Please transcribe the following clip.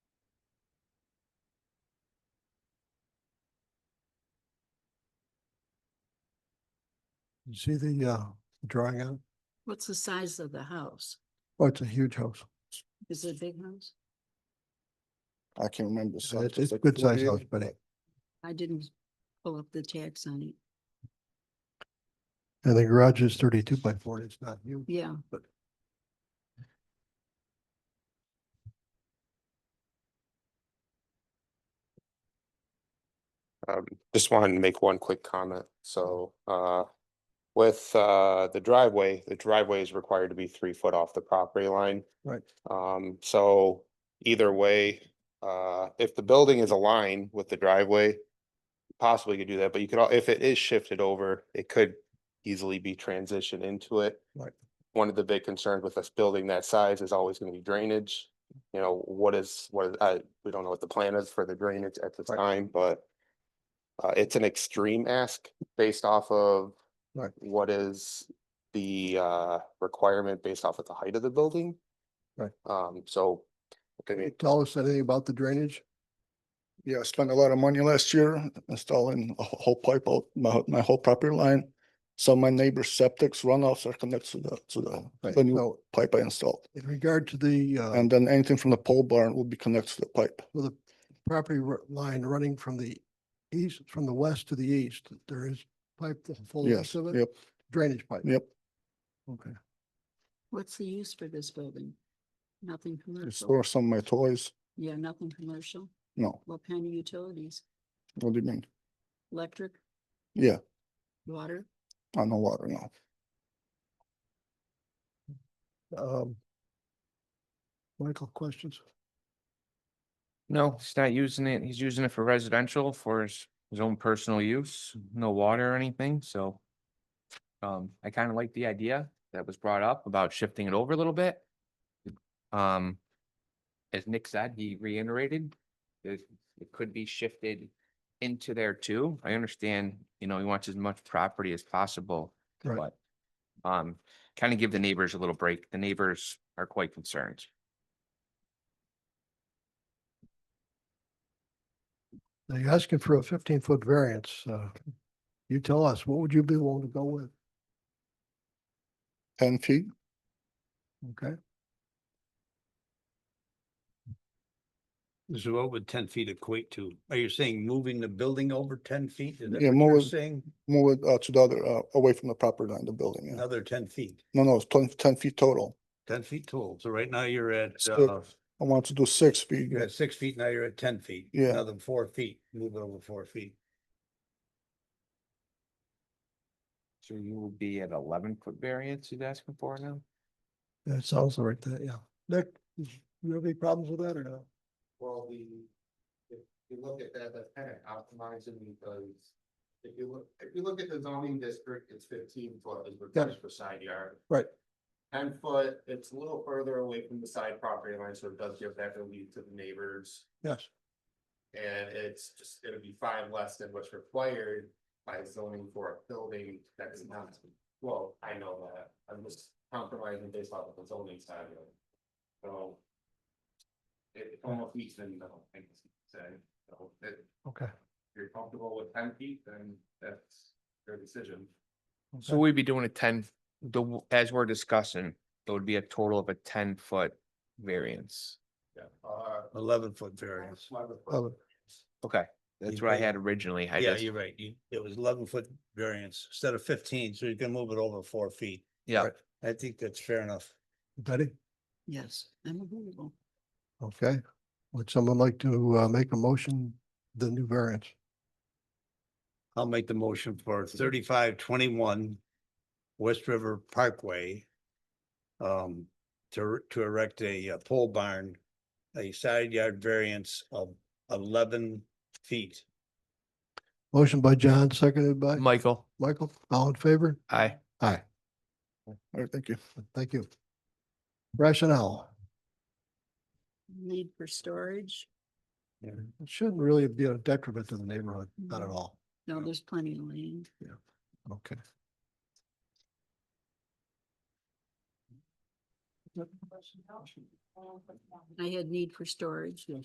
You see the uh drawing out? What's the size of the house? Oh, it's a huge house. Is it a big house? I can't remember. the Uh, size. It's It's it's a like good sized 48. house, but it- I didn't pull up the tax on it. and the garage is thirty two by forty. It's not huge. Yeah. But- Um, just wanted to make one quick comment. So, uh, with, uh, the driveway, the driveway is required to be three foot off the property line. Right. Um, so either way, uh, if the building is aligned with the driveway, possibly could do that, but you could, al- if it is shifted over, it could easily be transitioned into it. Right. One of the big concerns with us building that size is always gonna be drainage. You know, what is, what, is- I, we don't know what the plan is for the drainage at the Right. time, but uh, it's an extreme ask based off of Right. what is the uh requirement based off of the height of the building. Right. Um, so, I mean, Tell us anything about the drainage? Yeah, I spent a lot of money last year installing a wh- whole pipe out, my, my whole property line. So my neighbor's septic's runoffs are connected to the, to the, Right, the new so- pipe I installed. In regard to the uh, And then anything from the pole barn will be connected to the pipe. well, the property ru- line running from the east, from the west to the east, there is pipe, the full Yes, length of it, yep, drainage pipe. yep. Okay. What's the use for this building? Nothing commercial. Store some of my toys. Yeah, nothing commercial. No, What kind of utilities? what do you mean? Electric, Yeah, water? on the water, no. Um, Michael, questions? No, he's not using it. He's using it for residential for his, his own personal use, no water or anything, so. Um, I kind of like the idea that was brought up about shifting it over a little bit. Um, as Nick said, he reiterated, it, it could be shifted into there too. I understand, you know, he wants as much property as possible, Right. but. Um, kind of give the neighbors a little break. The neighbors are quite concerned. They're asking for a fifteen foot variance. uh, You tell us, what would you be willing to go with? Ten feet, Okay, So what would ten feet equate to? Are you saying moving the building over ten feet? Is that Yeah, what more you're was- Saying move it, uh, to the other, uh, away from the property line, the building. yeah. another ten feet, No, no, it's ten, ten feet total. ten feet tall. So right now you're at, Six. uh, I want to do six feet. you're at six feet, now you're at ten feet. Yeah. Another four feet, move it over four feet. So you would be at eleven foot variance he's asking for now? that sounds like that, yeah. Nick, you have any problems with that or no? Well, the, if you look at that, that's kind of optimizing because if you look, if you look at the zoning district, it's fifteen foot is required for side yard. Right. Ten foot, it's a little further away from the side property line, so it does give that relief to the neighbors. Yes, And it's just, it'll be five less than what's required by zoning for a building that is not, well, I know that, I'm just compromising based off of the zoning side of it. So. It almost meets the middle, I guess, you could say, so if okay. you're comfortable with ten feet, then that's your decision. So we'd be doing a ten, the, w- as we're discussing, it would be a total of a ten foot variance. Yeah. Uh, Eleven foot variance. Other- Okay, that's what I had originally, I Yeah, guess. you're right. You, it was eleven foot variance instead of fifteen, so you can move it over four feet. Yeah, Right. I think that's fair enough. Betty, Yes, I'm available. okay. Would someone like to uh, make a motion, the new variance? I'll make the motion for thirty-five twenty-one West River Parkway. Um, to, to erect a uh, pole barn, a side yard variance of eleven feet. Motion by John, seconded by Michael, Michael, all in favor? I, Aye, All right, thank you. thank you. Rationale, Need for storage? it shouldn't really be a detriment to the neighborhood, not at Mhm. all. No, there's plenty of land. Okay. I had need for storage. Yes.